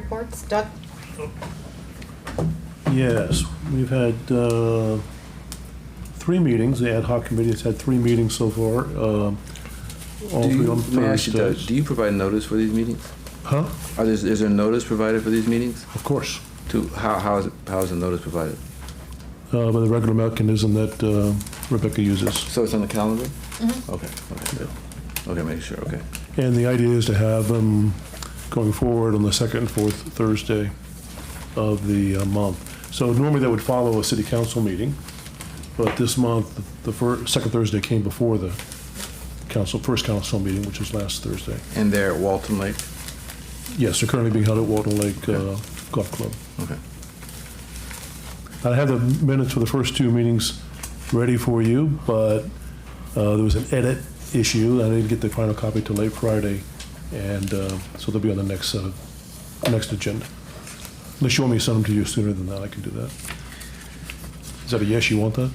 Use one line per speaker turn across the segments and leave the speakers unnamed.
Reports, Doug?
Yes, we've had uh, three meetings, the ad hoc committee has had three meetings so far, um, all
Do
three
you,
on
let me ask you, Doug,
Thursdays.
do you provide notice for these meetings?
Huh?
Are there, is there notice provided for these meetings?
Of course,
To, how, how is, how is the notice provided?
Uh, by the regular mechanism that uh, Rebecca uses.
So it's on the calendar? Okay, okay, good. Okay, make sure, okay.
And the idea is to have them going forward on the second and fourth Thursday of the uh, month. So normally that would follow a city council meeting, but this month, the first, second Thursday came before the council, first council meeting, which was last Thursday.
And they're at Walton Lake?
Yes, they're currently being held at Walton Lake uh, Golf Club.
Okay.
I have the minutes for the first two meetings ready for you, but uh, there was an edit issue. I didn't get the final copy till late Friday, and uh, so they'll be on the next, uh, next agenda. Unless you want me to send them to you sooner than that, I can do that. Is that a yes, you want that?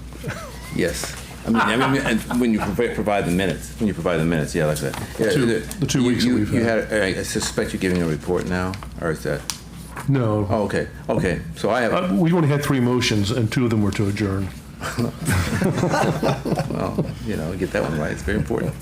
Yes. I mean, I mean, and when you provi- provide the minutes, when you provide the minutes, yeah, like that. Yeah,
two-
there-
the two
you-
weeks that
you-
we've
You had, I suspect you're giving a report now, or is that,
No.
oh, okay, okay. So I have,
Uh, We only had three motions, and two of them were to adjourn.
Well, you know, get that one right. It's very important.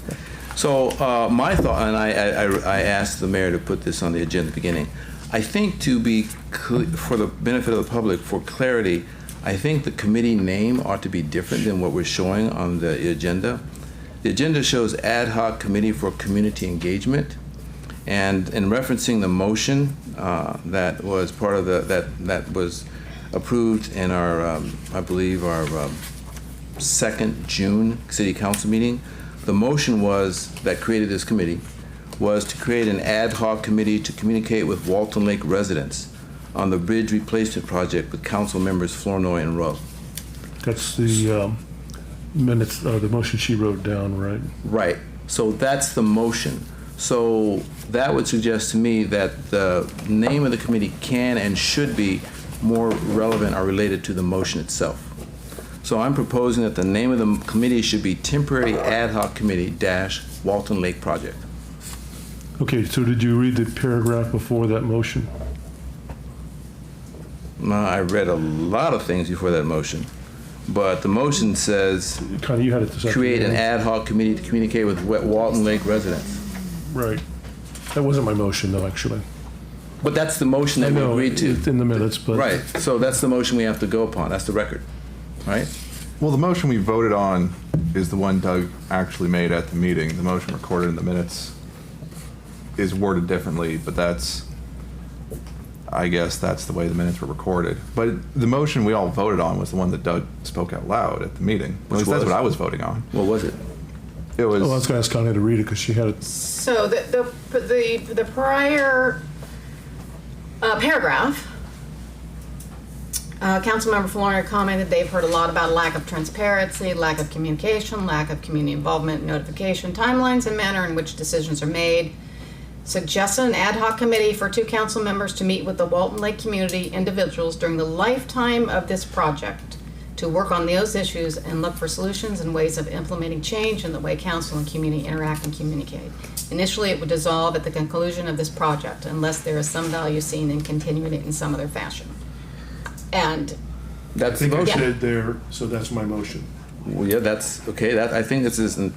So uh, my thought, and I, I, I- I asked the mayor to put this on the agenda at the beginning. I think to be, cl- for the benefit of the public, for clarity, I think the committee name ought to be different than what we're showing on the agenda. The agenda shows Ad hoc Committee for Community Engagement. And in referencing the motion uh, that was part of the, that, that was approved in our, um, I believe, our um, second June city council meeting, the motion was, that created this committee, was to create an ad hoc committee to communicate with Walton Lake residents on the bridge replacement project with council members Flournoy and Rowe.
That's the um, minutes, uh, the motion she wrote down, right?
Right. So that's the motion. So that would suggest to me that the name of the committee can and should be more relevant or related to the motion itself. So I'm proposing that the name of the committee should be Temporary Ad Hoc Committee dash Walton Lake Project.
Okay, so did you read the paragraph before that motion?
Now, I read a lot of things before that motion, but the motion says
Connie, you had it this
create an
afternoon.
ad hoc committee to communicate with Wa- Walton Lake residents.
Right. That wasn't my motion, though, actually.
But that's the motion
I
that we
know,
agreed to.
it's in the minutes, but.
Right, so that's the motion we have to go upon, that's the record, right?
Well, the motion we voted on is the one Doug actually made at the meeting. The motion recorded in the minutes is worded differently, but that's, I guess that's the way the minutes were recorded. But the motion we all voted on was the one that Doug spoke out loud at the meeting. At
Which
least that's
was?
what I was voting on.
What was it?
It
Oh, I was
was,
going to ask Connie to read it because she had it.
So the, the, the, the prior uh, paragraph, uh, Councilmember Florina commented they've heard a lot about lack of transparency, lack of communication, lack of community involvement, notification timelines, and manner in which decisions are made. Suggested an ad hoc committee for two council members to meet with the Walton Lake community individuals during the lifetime of this project to work on those issues and look for solutions and ways of implementing change in the way council and community interact and communicate. Initially, it would dissolve at the conclusion of this project unless there is some value seen in continuing it in some other fashion. And
That's the motion.
it there, so that's my motion.
Well, yeah, that's, okay, that, I think this is, an-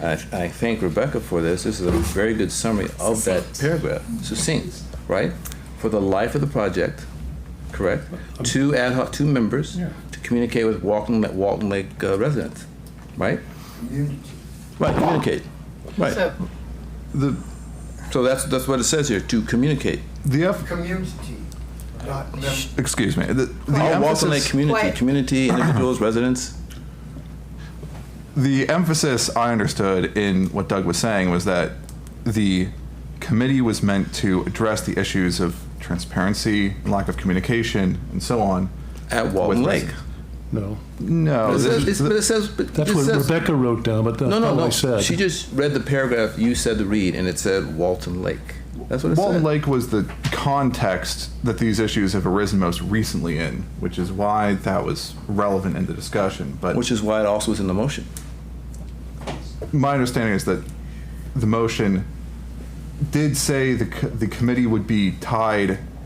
I, I thank Rebecca for this, this is a very good summary of that paragraph, succinct, right? For the life of the project, correct? Two ad hoc, two members to communicate with Walton, Walton Lake uh, residents, right? Right, communicate, right.
so,
the,
So that's, that's what it says here, to communicate.
the, F-
community, not member.
excuse me, the, the
Oh, Walton Lake
emphasis-
community,
Quiet.
community, individuals, residents.
The emphasis I understood in what Doug was saying was that the committee was meant to address the issues of transparency, lack of communication, and so on.
At Walton
with
Lake.
residents.
No,
No,
It says-
Oh, this
it's-
is-
but it says- but
that's
it
what
says-
Rebecca wrote down, but that's
No, no,
not what I
no.
said.
She just read the paragraph you said to read, and it said Walton Lake. That's what it
Walton
said.
Lake was the context that these issues have arisen most recently in, which is why that was relevant in the discussion. But
Which is why it also was in the motion.
my understanding is that the motion did say the, co- the committee would be tied